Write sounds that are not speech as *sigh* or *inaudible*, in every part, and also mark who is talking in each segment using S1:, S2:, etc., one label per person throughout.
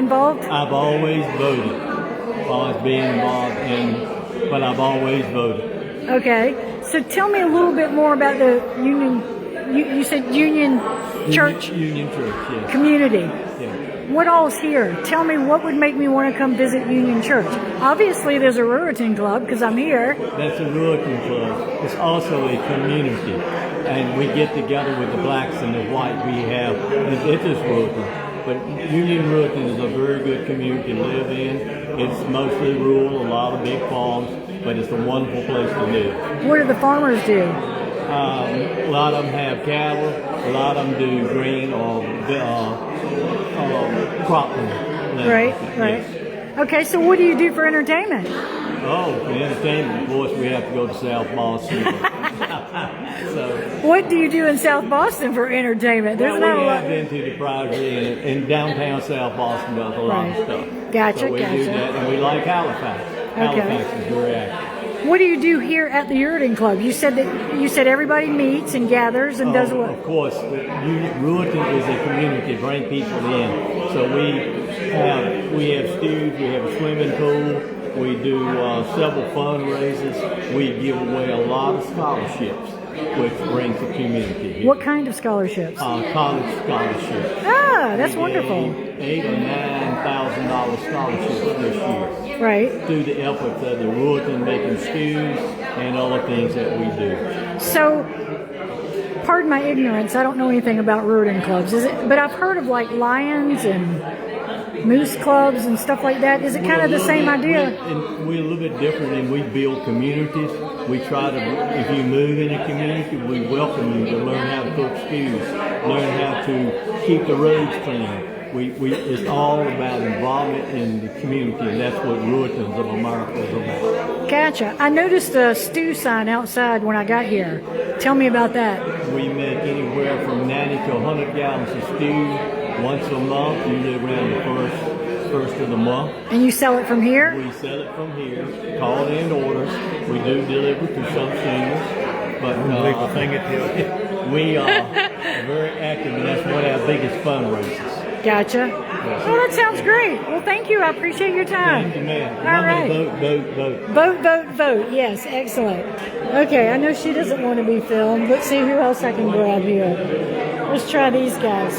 S1: involved?
S2: I've always voted. Always been involved in, but I've always voted.
S1: Okay. So tell me a little bit more about the union. You, you said union church
S2: Union, Union Church, yes.
S1: community.
S2: yes.
S1: What all's here? Tell me what would make me want to come visit Union Church. Obviously, there's a Ruritan Club because I'm here.
S2: That's a Ruritan Club. It's also a community. And we get together with the blacks and the white we have. It's, it's just Ruritan. But Union Ruritan is a very good community to live in. It's mostly rural, a lot of big farms, but it's a wonderful place to live.
S1: What do the farmers do?
S2: Um, a lot of them have cattle. A lot of them do green or uh, uh, cropland.
S1: Right, right.
S2: Yes.
S1: Okay, so what do you do for entertainment?
S2: Oh, for entertainment, of course, we have to go to South Boston. so
S1: What do you do in South Boston for entertainment? *laughs* There's
S2: well, we
S1: not
S2: have
S1: a lot.
S2: been to the Priory in, in downtown South Boston about a lot
S1: Right.
S2: of stuff.
S1: Gotcha,
S2: so we
S1: gotcha.
S2: do that, and we like Halifax. Halifax is very active.
S1: What do you do here at the Uridan Club? You said that you said everybody meets and gathers and does
S2: Oh,
S1: what?
S2: Of course, Ruerton is a community, bring people in. So we have we have stews, we have a swimming pool, we do uh, several fundraisers, we give away a lot of scholarships, which brings the community here.
S1: What kind of scholarships?
S2: Uh, college scholarships.
S1: Ah, that's
S2: We gave
S1: wonderful.
S2: Eight or nine thousand dollar scholarships this year
S1: Right.
S2: through the efforts of the Ruerton Making Stews and other things that we do.
S1: So, pardon my ignorance. I don't know anything about Uridan clubs. Is it? But I've heard of like lions and moose clubs and stuff like that. Is it kind of the same idea?
S2: We're, and we're a little bit different, and we build communities. We try to, if you move in a community, we welcome you to learn how to cook stews, learn how to keep the roads clean. We, we, it's all about involvement in the community, and that's what Ruitons of America is about.
S1: Gotcha. I noticed a stew sign outside when I got here. Tell me about that.
S2: We make anywhere from 90 to 100 gallons of stew once a month, usually around the first, first of the month.
S1: And you sell it from here?
S2: We sell it from here, call in orders. We do deliver to some seniors, but
S3: Unbelievable
S2: uh,
S3: thing it is.
S2: *laughs* we are very active, and that's one of our biggest
S1: *laughs*
S2: fundraisers.
S1: Gotcha. Well, that sounds great. Well, thank you. I appreciate your
S2: Thank you,
S1: time.
S2: ma'am.
S1: All
S2: Remember
S1: right.
S2: to Vote, vote, vote.
S1: Vote, vote, vote. Yes, excellent. Okay, I know she doesn't want to be filmed. Let's see who else I can grab here. Let's try these guys.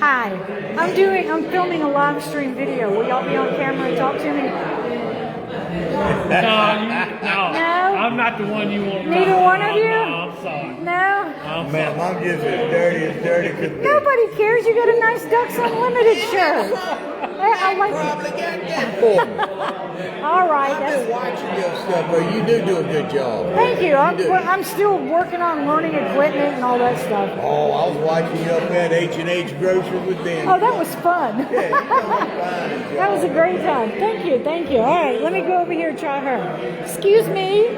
S1: Hi. I'm doing, I'm filming a live stream video. Will y'all be on camera and talk to me?
S4: No, you, no,
S1: No?
S4: I'm not the one you want. to
S1: Neither
S4: talk to.
S1: one of you?
S4: No, I'm sorry.
S1: No?
S4: I'm sorry.
S3: Man, I'm just as dirty as dirty could be.
S1: Nobody cares. You got a nice Ducks Unlimited shirt. I, I like,
S5: probably got that for me.
S1: all right.
S5: I've
S1: That's,
S5: been watching your stuff, but you do do a good job.
S1: Thank you. I'm,
S5: do.
S1: well, I'm still working on learning equipment and all that stuff.
S5: Oh, I was watching you up at H and H Grocery with them.
S1: Oh, that was fun. *laughs* that was a great time. Thank you. Thank you. All right, let me go over here and try her. Excuse me.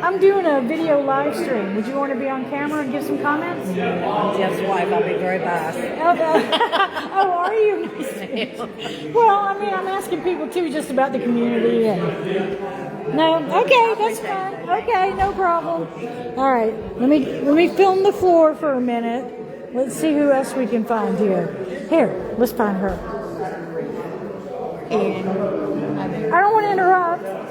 S1: I'm doing a video live stream. Would you want to be on camera and give some comments?
S6: Jeff's wife, I'll be very biased.
S1: Oh, *laughs* uh, oh, are you? Nice to meet you. Well, I mean, I'm asking people too, just about the community. And no, okay, that's fine. Okay, no problem. All right, let me let me film the floor for a minute. Let's see who else we can find here. Here, let's find her.
S7: And
S1: I don't want to interrupt.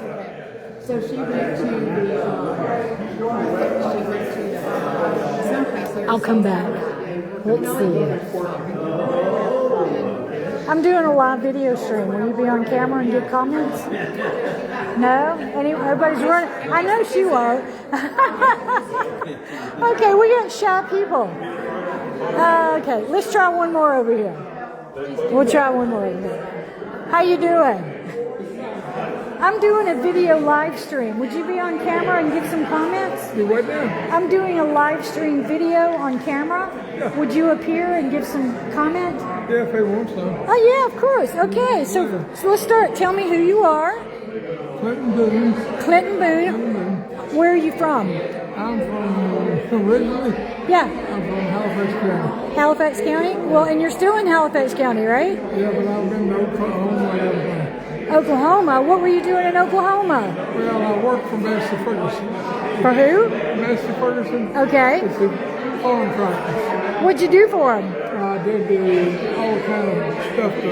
S7: so she went to the, um, she went to the, uh, someplace there.
S1: I'll come back. Let's see. I'm doing a live video stream. Will you be on camera and get comments? No? Any, everybody's running. I know she won't. *laughs* okay, we got shy people. Uh, okay, let's try one more over here. We'll try one more over here. How you doing? I'm doing a video live stream. Would you be on camera and give some comments?
S8: You what now?
S1: I'm doing a live stream video on camera. Would you appear and give some comment?
S8: Yeah, if they want some.
S1: Oh yeah, of course. Okay, so, so let's start. Tell me who you are.
S8: Clinton Boone,
S1: Clinton Boone. Where are you from?
S8: I'm from, uh, *laughs* originally,
S1: Yeah,
S8: I'm from Halifax County.
S1: Halifax County. Well, and you're still in Halifax County, right?
S8: Yeah, but I've been to Oklahoma and everything.
S1: Oklahoma. What were you doing in Oklahoma?
S8: Well, I work for Master Ferguson.
S1: For who?
S8: Master Ferguson
S1: Okay.
S8: is the farm practice.
S1: What'd you do for him?
S8: I they do all kind of stuff to